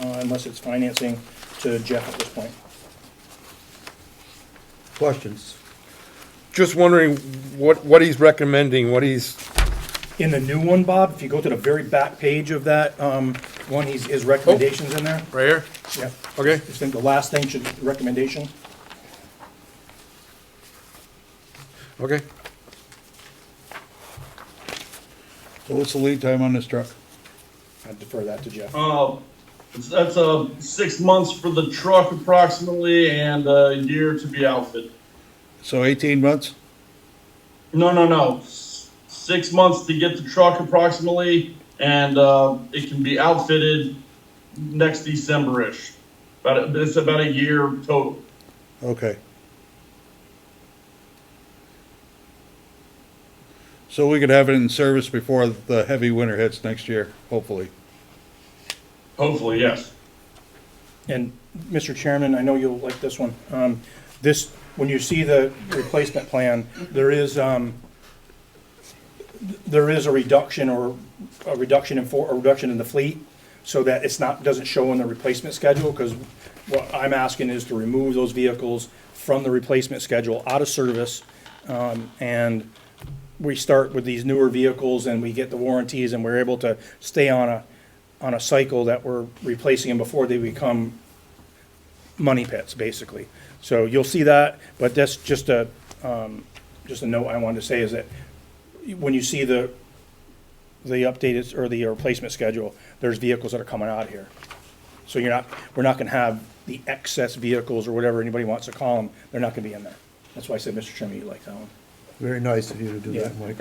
uh, unless it's financing to Jeff at this point. Questions? Just wondering what, what he's recommending, what he's, In the new one, Bob, if you go to the very back page of that, um, one, he's, his recommendations in there. right here? Yep. Okay, I think the last thing should, recommendation. okay. So what's the lead time on this truck? I defer that to Jeff. Uh, it's- that's uh, six months for the truck approximately and a year to be outfitted. So eighteen months? No, no, no. S- Six months to get the truck approximately and uh, it can be outfitted next December-ish. About, a- it's about a year total. Okay. So we could have it in service before the heavy winter hits next year, hopefully. Hopefully, yes. And, Mr. Chairman, I know you'll like this one. Um, This, when you see the replacement plan, there is, um, there is a reduction or a reduction in, for- a reduction in the fleet so that it's not, doesn't show in the replacement schedule, because what I'm asking is to remove those vehicles from the replacement schedule, out of service. um, And we start with these newer vehicles and we get the warranties and we're able to stay on a, on a cycle that we're replacing them before they become money pits, basically. So you'll see that, but that's just a, um, just a note I wanted to say is that when you see the, the updated or the replacement schedule, there's vehicles that are coming out here. So you're not, we're not gonna have the excess vehicles or whatever anybody wants to call them, they're not gonna be in there. That's why I said, Mr. Chairman, you like that one. Very nice of you to do that, Mike.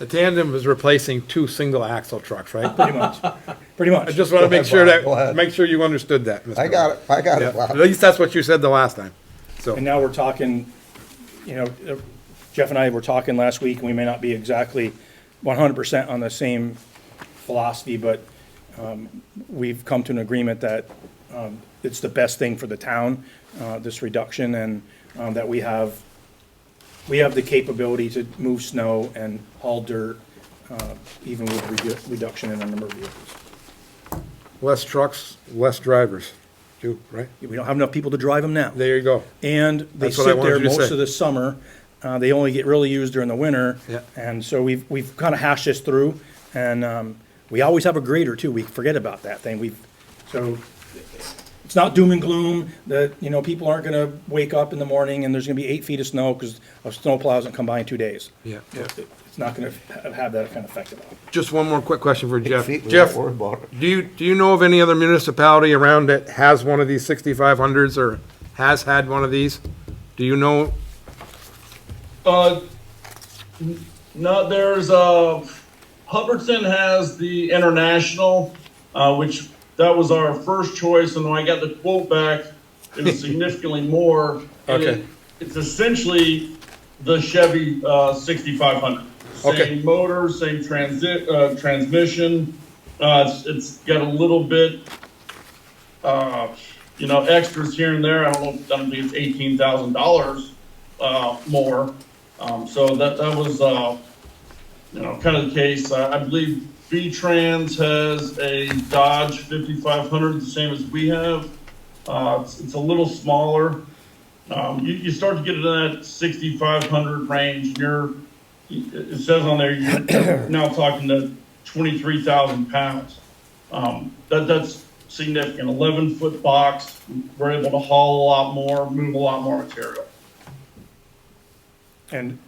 The tandem is replacing two single axle trucks, right? Pretty much, pretty much. I just want to make sure Go that, ahead. make sure you understood that, Mr. I got it, I got Yeah, it, At Bob. least that's what you said the last time, so. And now we're talking, you know, uh, Jeff and I were talking last week, and we may not be exactly one hundred percent on the same philosophy, but um, we've come to an agreement that um, it's the best thing for the town, uh, this reduction, and um, that we have, we have the capability to move snow and haul dirt, uh, even with redu- reduction in the number of vehicles. Less trucks, less drivers, too, right? We don't have enough people to drive them now. There you go. And they That's what I sit there wanted you to most say. of the summer. Uh, they only get really used during the winter. Yeah. And so we've, we've kind of hashed this through and, um, we always have a grader too. We forget about that thing. We've, so it's not doom and gloom that, you know, people aren't going to wake up in the morning and there's going to be eight feet of snow because a snowplow hasn't come by in two days. Yeah, yeah. It's not going to have that kind of effect at all. Just one more quick question for Jeff. Feet, we Jeff, don't worry about it. do you, do you know of any other municipality around that has one of these sixty-five hundreds or has had one of these? Do you know, Uh, n- no, there's, uh, Hubbardson has the International, uh, which, that was our first choice, and when I got the quote back, it was significantly more. and Okay. it- It's essentially the Chevy, uh, sixty-five hundred. Okay. Same motor, same transit, uh, transmission, uh, it's, it's got a little bit, uh, you know, extras here and there, I don't know, if- I don't think it's eighteen thousand dollars, uh, more. Um, so that, that was, uh, you know, kind of the case. Uh, I believe V-Trans has a Dodge 5500, the same as we have. Uh, it's, it's a little smaller. Um, you, you start to get into that 6,500 range, and you're, it it says on there, you're now talking to 23,000 pounds. Um, that, that's significant. 11 foot box, we're able to haul a lot more, move a lot more material. And,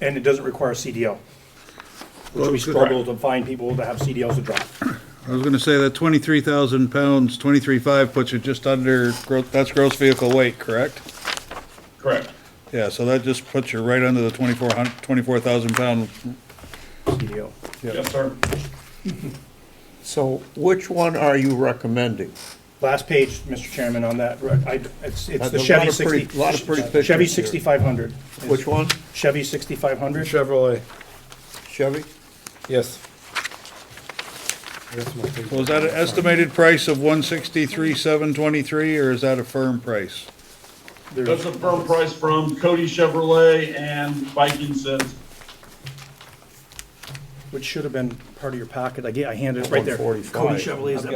and it doesn't require a CDL. Which Well, we good. struggle to find people that have CDLs to drive. I was gonna say that twenty-three thousand pounds, twenty-three five puts you just under, gro- that's gross vehicle weight, correct? Correct. Yeah, so that just puts you right under the twenty-four hun, twenty-four thousand pound. CDL. Yes, sir. So which one are you recommending? Last page, Mr. Chairman, on that, right, I, it's, it's Uh, There's the a lot Chevy of pretty- sixty. lot of pretty Chevy pictures here. sixty-five hundred. Which one? Chevy sixty-five hundred. Chevrolet? Chevy? Yes. That's my thing. Was that an estimated price of one sixty-three, seven twenty-three, or is that a firm price? That's a firm price from Cody Chevrolet and Viking Sense. Which should have been part of your packet. I ga- I handed it right there. 145. Cody Chevrolet is that